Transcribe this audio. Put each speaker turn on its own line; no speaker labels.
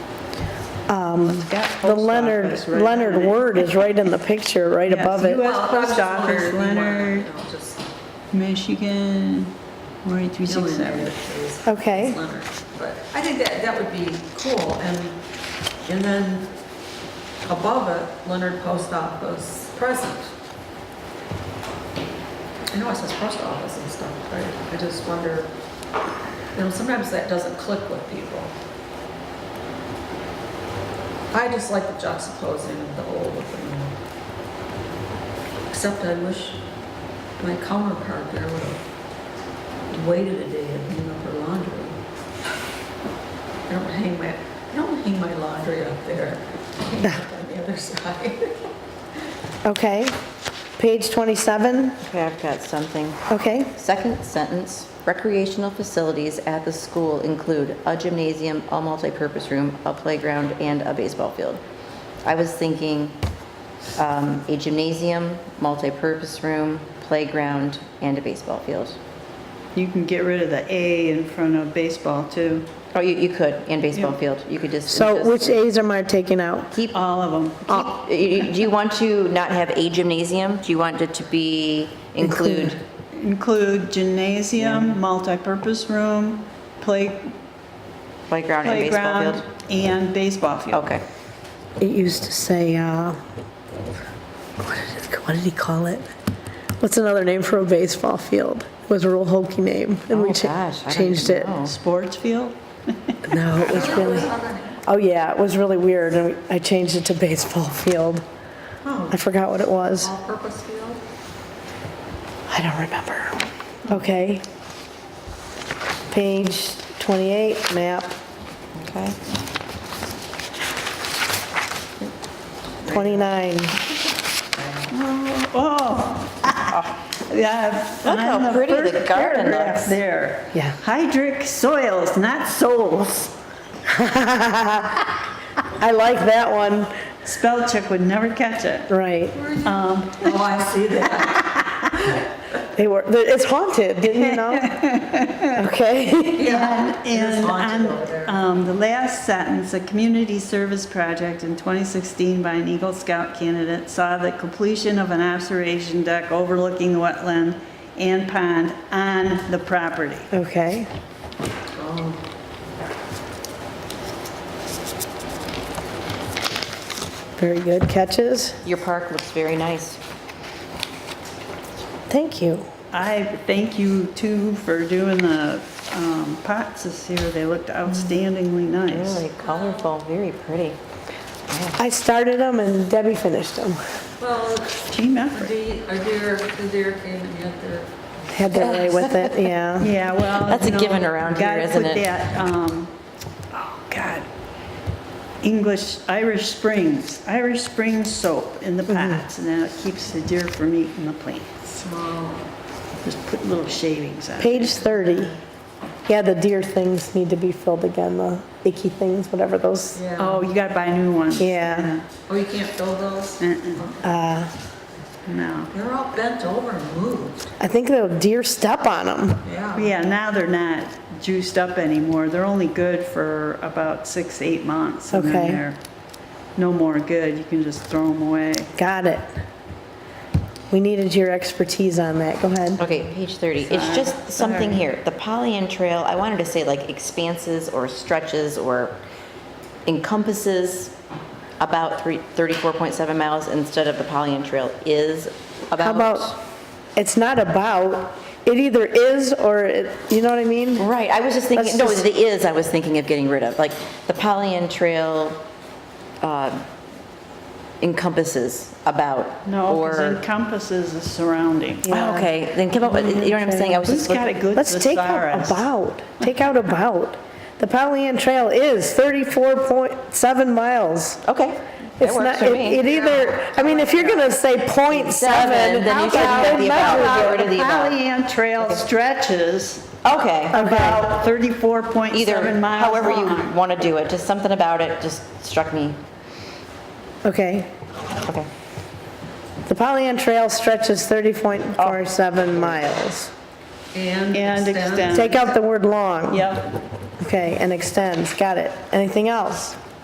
Um, The Leonard, Leonard Word is right in the picture, right above it.
US Post
Well, I
Office,
just wondered, you wanna-
Leonard,
I'll just
Michigan,
fill in there
48367.
if it was-
Okay.
it's Leonard. But I think that, that would be cool, and, and then above it, Leonard Post Office present. I know it says post office and stuff, but I just wonder, you know, sometimes that doesn't click with people. I just like the juxtaposing of the old with the new. Except I wish my counterpart there would have waited a day and hung up her laundry. I don't hang my, I don't hang my laundry up there. I hang it On the other side.
Okay. Page 27,
Okay, I've got something.
okay.
Second sentence, recreational facilities at the school include a gymnasium, a multipurpose room, a playground, and a baseball field. I was thinking um, a gymnasium, multipurpose room, playground, and a baseball field.
You can get rid of the A in front of baseball too,
Oh, you, you could, and baseball field, you could just.
So
just
which As am I taking out?
Keep, keep-
all of them.
you- you- do you want to not have a gymnasium? Do you want it to be, include?
Include gymnasium, multipurpose room, play,
Playground and baseball
playground,
field?
and baseball field.
Okay.
It used to say, uh, what did it- what did he call it? What's another name for a baseball field? It was a real hokey name. and we
Oh,
cha-
gosh, I don't
Changed
even
it.
know.
Sports field?
No, it was really, oh yeah, it was really weird. And I changed it to baseball field.
Oh,
I forgot what it was.
all-purpose field?
I don't remember. Okay. Page 28, map
Okay.
29.
Oh, yeah.
Look how
on
pretty the
first
garden
paragraph
looks.
There.
Yeah.
Hydric soils, not souls.
I like that one.
Spell check would never catch it.
Right.
Oh, I see that.
They were, it's haunted, didn't you know? Okay.
And, and
haunted over there.
on, um, the last sentence, a community service project in 2016 by an Eagle Scout candidate saw the completion of an observation deck overlooking the wetland and pond on the property.
Okay. Very good catches.
Your park looks very nice.
Thank you.
I thank you too for doing the um, pots this year. They looked outstandingly nice.
Really colorful, very pretty.
I started them and Debbie finished them.
Well,
Team
the
effort.
deer, a deer, the deer came and got their
Had their way with it, yeah.
Yeah, well.
That's a
you know,
given around here,
gotta
isn't
put
it?
that, um, oh, God. English, Irish Springs, Irish Springs soap in the
Mm-hmm.
pots, and then it keeps the deer from eating the plants.
small.
Just put little shavings on it.
Page 30. Yeah, the deer things need to be filled again, the icky things, whatever those.
Yeah.
Oh, you gotta buy new ones.
Yeah.
Oh, you can't fill those?
Uh-uh,
Uh,
No.
They're all bent over and moved.
I think the deer step on them.
Yeah.
Yeah, now they're not juiced up anymore. They're only good for about six, eight months. And
Okay.
then they're no more good. You can just throw them away.
Got it. We needed your expertise on that. Go ahead.
Okay, page 30. It's just something here. The Pollyant Trail, I wanted to say like expanses or stretches or encompasses about three- 34.7 miles instead of the Pollyant Trail is
How
about.
about, it's not about, it either is or, it- you know what I mean?
Right, I was just thinking,
Let's
no,
just-
the is I was thinking of getting rid of. Like the Pollyant Trail uh, encompasses about.
No,
or.
because encompasses the surrounding.
Oh, Okay, then come up with, you know what I'm saying? I was
Who's
just
got a
looking.
good
Let's take out
thesaurus?
about, take out about. The Pollyant Trail is 34.7 miles.
Okay. that
It's
works
not,
for
it
me.
it either, I mean, if you're going to say point seven.
Seven, then you should
that's
have the about.
measure.
Get rid of the about.
Pollyant Trail stretches
Okay.
Okay,
about 34.7
Either,
miles
however you
long.
want to do it, just something about it just struck me.
okay.
Okay.
The Pollyant Trail stretches 30.47 miles.
And
And
extend.
extend.
Take out the word long.
Yep.
Okay, and extends, got it. Anything else?